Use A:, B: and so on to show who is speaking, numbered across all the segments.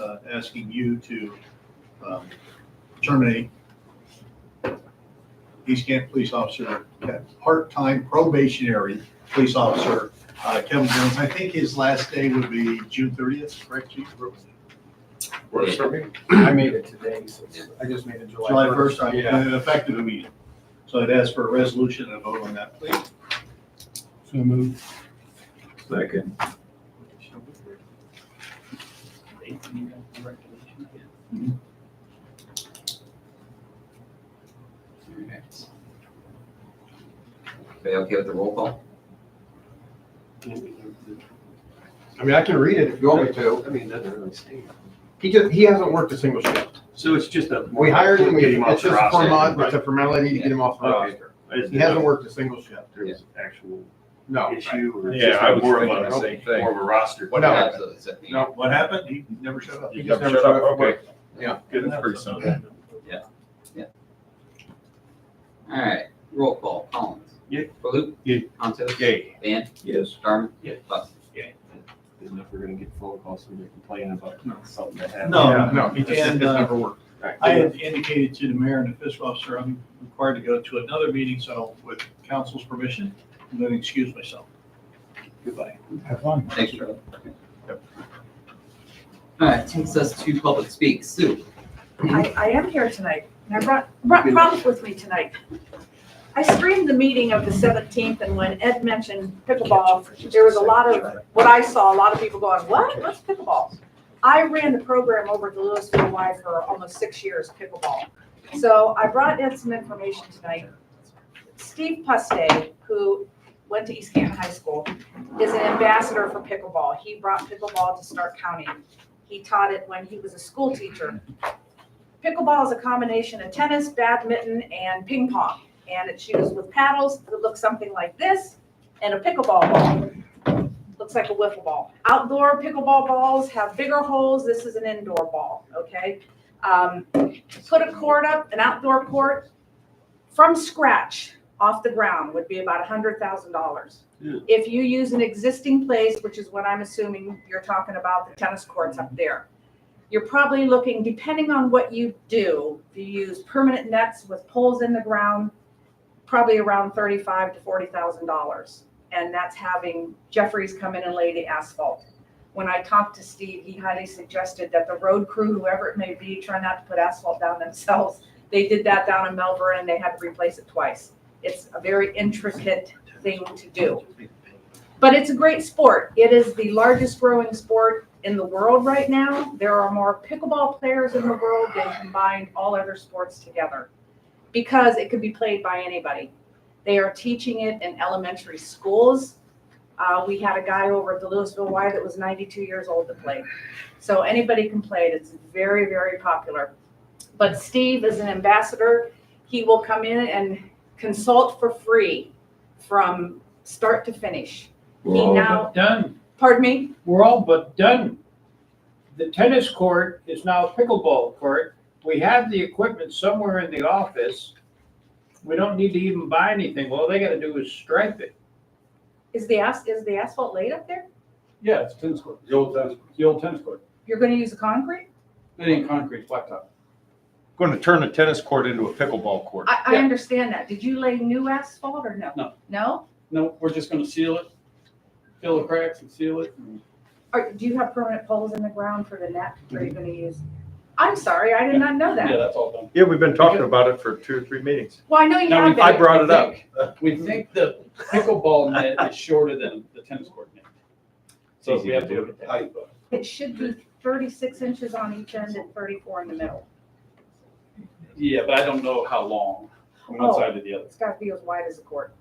A: uh, asking you to um, terminate East Kent Police Officer, uh, part-time probationary police officer uh, Kevin Jones. I think his last day would be June thirtieth, correct, Chief?
B: Works for me.
C: I made it today, so it's- I just made it July.
A: July first, I-
C: Yeah.
A: uh, effective immediately. So I'd ask for a resolution and a vote on that, please.
C: So moved.
B: Second.
D: Everybody okay with the roll call?
C: I mean, I can read it if you want me to.
E: I mean, that doesn't really sting.
C: He just, he hasn't worked a single shift.
E: So it's just a.
C: We hired him, we,
E: Get him off
C: it's
E: the
C: just
E: roster.
C: for month,
E: Right.
C: it's a formality to get him off the
E: Okay.
C: roster.
E: It's
C: He
E: not-
C: hasn't worked a single shift.
E: there was actual
C: No.
E: issue or.
B: Yeah, I was
E: More of
B: thinking
E: a,
B: the same thing.
E: more of a roster.
C: No.
D: Absolutely, it's at the-
C: No.
A: What happened? He never showed up.
C: He
B: You
C: just
B: never
C: never
B: shut up,
C: showed up.
B: okay.
A: Good
B: That's pretty simple.
D: All right, roll call, Collins.
E: Yeah.
D: Baloo.
B: Yeah.
D: Conso.
B: Yay.
D: Van.
B: Yes.
D: Darman.
E: Yeah.
D: Buck.
E: Isn't if we're gonna get phone calls from you complaining about something that happened.
A: No.
C: Yeah, No, he just,
A: And,
C: it's
A: uh,
C: never worked.
E: Right.
A: I had indicated to the mayor and the fiscal officer, I'm required to go to another meeting, so with council's permission, I'm going to excuse myself.
E: Goodbye.
C: Have fun.
D: Thanks, Charlie. All right, takes us to public speak. Sue.
F: I, I am here tonight, and I brought, brought problems with me tonight. I streamed the meeting of the seventeenth, and when Ed mentioned pickleball, there was a lot of, what I saw, a lot of people going, what, what's pickleball? I ran the program over at the Louisville Y for almost six years, pickleball. So I brought Ed some information tonight. Steve Puste, who went to East Canton High School, is an ambassador for pickleball. He brought pickleball to Stark County. He taught it when he was a school teacher. Pickleball is a combination of tennis, badminton, and ping pong. And it's used with paddles that look something like this and a pickleball ball. Looks like a wiffle ball. Outdoor pickleball balls have bigger holes. This is an indoor ball, okay? Um, Put a court up, an outdoor court, from scratch, off the ground, would be about $100,000.
E: Yeah.
F: If you use an existing place, which is what I'm assuming you're talking about, the tennis courts up there you're probably looking, depending on what you do, if you use permanent nets with poles in the ground, probably around thirty-five to forty thousand dollars. And that's having Jeffries come in and lay the asphalt. When I talked to Steve, he highly suggested that the road crew, whoever it may be, try not to put asphalt down themselves. They did that down in Melbourne and they had to replace it twice. It's a very intricate thing to do. But it's a great sport. It is the largest growing sport in the world right now. There are more pickleball players in the world than combined all other sports together because it could be played by anybody. They are teaching it in elementary schools. Uh, we had a guy over at the Louisville Y that was 92 years old that played. So anybody can play it. It's very, very popular. But Steve is an ambassador. He will come in and consult for free from start to finish.
B: We're all
F: He now,
G: done.
F: pardon me,
G: We're all but done. The tennis court is now a pickleball court. We have the equipment somewhere in the office. We don't need to even buy anything. All they gotta do is stripe it.
F: is the as, is the asphalt laid up there?
H: Yeah, it's tennis court, the old tennis, the old tennis court.
F: You're gonna use the concrete?
H: It ain't concrete, blacktop.
B: Going to turn a tennis court into a pickleball court.
F: I, I
H: Yeah.
F: understand that. Did you lay new asphalt or no?
H: No.
F: No?
H: No, we're just gonna seal it, fill the cracks and seal it. and-
F: Or do you have permanent poles in the ground for the net? Or are you gonna use? I'm sorry, I did not know
H: Mm-hmm. Yeah,
F: that.
H: that's all done.
B: Yeah, we've been talking about it for two or three meetings.
F: Well, I know you
H: No,
F: have
B: I
F: been.
B: brought it up.
H: We think the pickleball net is shorter than the tennis court net. So we have to look at that.
F: It should be thirty-six inches on each end and thirty-four in the middle.
H: Yeah, but I don't know how long, from one
F: Oh.
H: side to the other.
F: It's gotta be as wide as the court.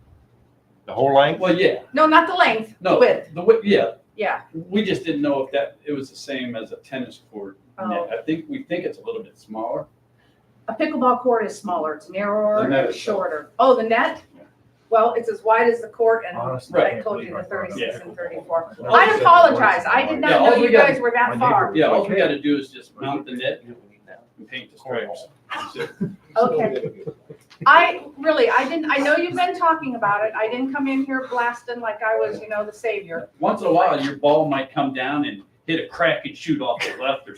B: The whole length?
H: Well, yeah,
F: No, not the length, the
H: no,
F: width,
H: the width, yeah,
F: yeah.
H: we just didn't know if that, it was the same as a tennis court
F: Oh.
H: net. I think, we think it's a little bit smaller.
F: A pickleball court is smaller, it's narrower,
H: The net
F: it's
H: is
F: shorter. Oh, the net?
H: Yeah.
F: Well, it's as wide as the court and
A: Honestly,
H: Right.
F: I told you the thirty-six and thirty-four.
H: Yeah.
F: I apologize, I did
H: Yeah, oh
F: not
H: all
F: know
H: we
F: you
H: got-
F: guys were that far.
H: Yeah, all we gotta do is just mount the net and paint the stripes.
F: Okay. I, really, I didn't, I know you've been talking about it, I didn't come in here blasting like I was, you know, the savior.
H: Once in a while, your ball might come down and hit a crack and shoot off the left or